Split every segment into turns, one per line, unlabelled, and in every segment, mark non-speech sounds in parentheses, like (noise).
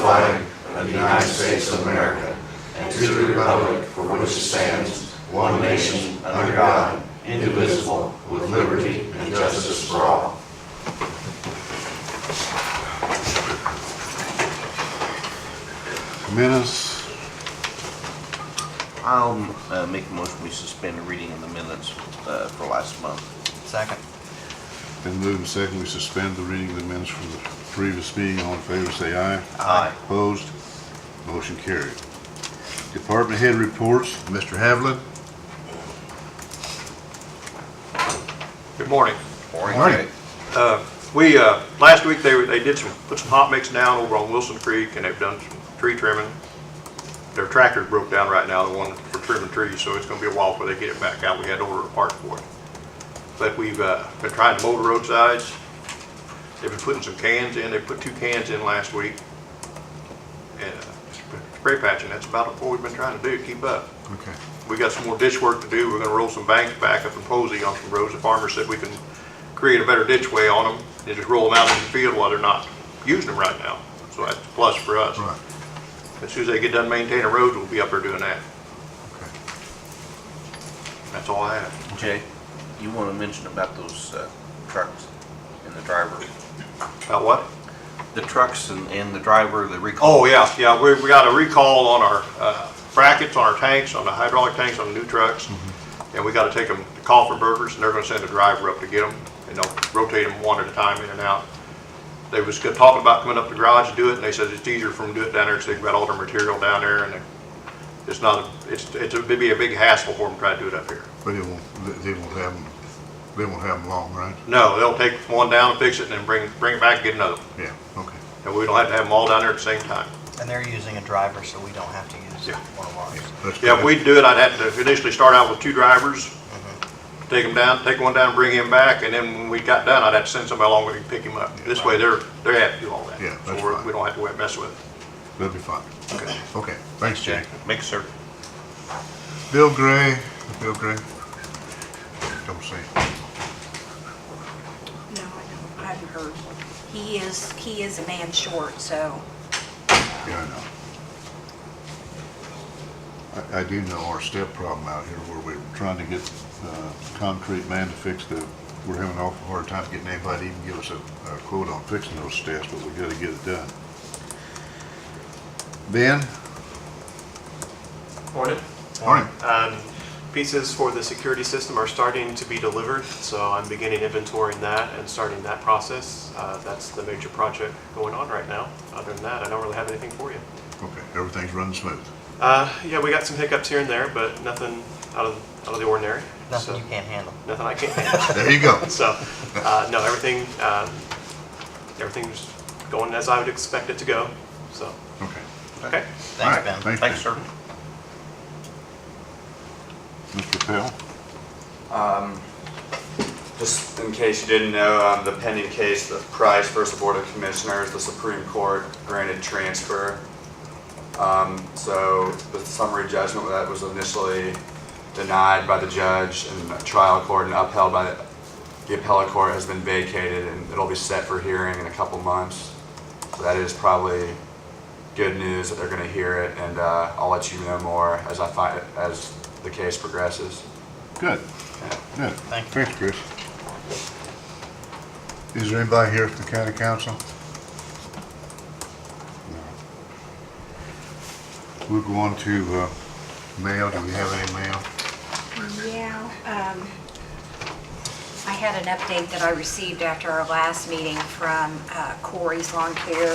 of the United States of America and to the republic for which it stands, one nation, under God, indivisible, with liberty and justice for all.
Minutes,
I'll uh, make a motion, we suspend the reading of the minutes uh, for last month.
Second.
been moved and second, we suspend the reading of the minutes from the previous meeting. All in favor, say aye.
Aye.
Opposed? Motion carried. Department head reports, Mr. Havlin.
Good morning.
Morning.
Uh, We, uh, last week, they, were- they did some, put some hot mix down over on Wilson Creek, and they've done some tree trimming. Their tractor's broke down right now, the one for trimming trees, so it's gonna be a while before they get it back out. We had to order a part for it. But we've uh, been trying to mow the roadsides. They've been putting some cans in. They put two cans in last week. And uh, spray patching, that's about what we've been trying to do, keep up.
Okay.
We got some more ditch work to do. We're gonna roll some banks back up in Posey on some roads. The farmer said we can create a better ditch way on them and just roll them out in the field while they're not using them right now. So that's a plus for us.
Right,
As soon as they get done maintaining roads, we'll be up there doing that.
okay.
That's all I have.
Jay, you want to mention about those uh, trucks and the driver?
About what?
The trucks and, and the driver, the recall?
Oh, yeah, yeah, we, we got a recall on our uh, brackets, on our tanks, on the hydraulic tanks, on the new trucks. And we gotta take them to Kaufenberger's and they're gonna send a driver up to get them and they'll rotate them one at a time in and out. They was good- talking about coming up to the garage to do it and they said it's easier for them to do it down there because they've got all their material down there and they- it's not, it's, it's, a- it'd be a big hassle for them to try to do it up here.
But they won't, they- they won't have them, they won't have them long, right?
No, they'll take one down, fix it and then bring, bring it back and get another. one.
Yeah, okay.
And we don't have to have them all down there at the same time.
And they're using a driver, so we don't have to use
Yeah.
one of ours.
That's
Yeah, if
good.
we do it, I'd have to initially start out with two drivers,
Mm-hmm.
take them down, take one down, bring him back, and then when we got done, I'd have to send somebody along with him to pick him up. This way, they're, they're happy to do all that.
Yeah,
So
that's
we're-
fine.
we don't have to mess with
That'll be fine.
it. Okay.
Okay, thanks, Jay.
Jay, make sure.
Bill Gray, Bill Gray. Come see.
No, I don't. I haven't heard. He is, he is a man short, so.
Yeah, I know. I, I do know our step problem out here where we're trying to get, uh, concrete man to fix the, we're having an awful hard time getting anybody to even give us a, a quote on fixing those steps, but we gotta get it done. Ben?
Morning.
Morning.
Um, Pieces for the security system are starting to be delivered, so I'm beginning inventorying that and starting that process. Uh, That's the major project going on right now. Other than that, I don't really have anything for you.
Okay, everything's running smooth.
Uh, Yeah, we got some hiccups here and there, but nothing out of, out of the ordinary.
Nothing
So-
you can't handle.
Nothing I can't handle. (laughs)
There you go.
So, uh, no, everything, um, everything's going as I would expect it to go, so,
Okay.
okay.
All
Thanks,
right,
Ben.
Thanks, Ben.
Thanks, sir.
Mr. Pell?
Um, Just in case you didn't know, um, the pending case, the Price versus Board of Commissioners, the Supreme Court granted transfer. Um, So the summary judgment that was initially denied by the judge and the trial court and upheld by the- the appellate court has been vacated and it'll be set for hearing in a couple months. So that is probably good news that they're going to hear it and uh, I'll let you know more as I find, as the case progresses.
Good. Good.
Thank you.
Thanks, Chris. Is there anybody here from the county council? No. We'll go on to uh, mail. Do we have any mail?
Yeah. um, I had an update that I received after our last meeting from uh, Corey's Lawn Care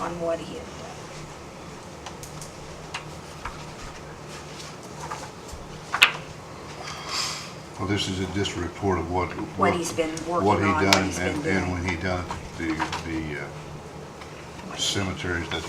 on what he had done.
Well, this is just a report of what.
What he's been working
what he
on, what
done
he's been
and-
doing.
And when he done it, the, the uh, cemeteries that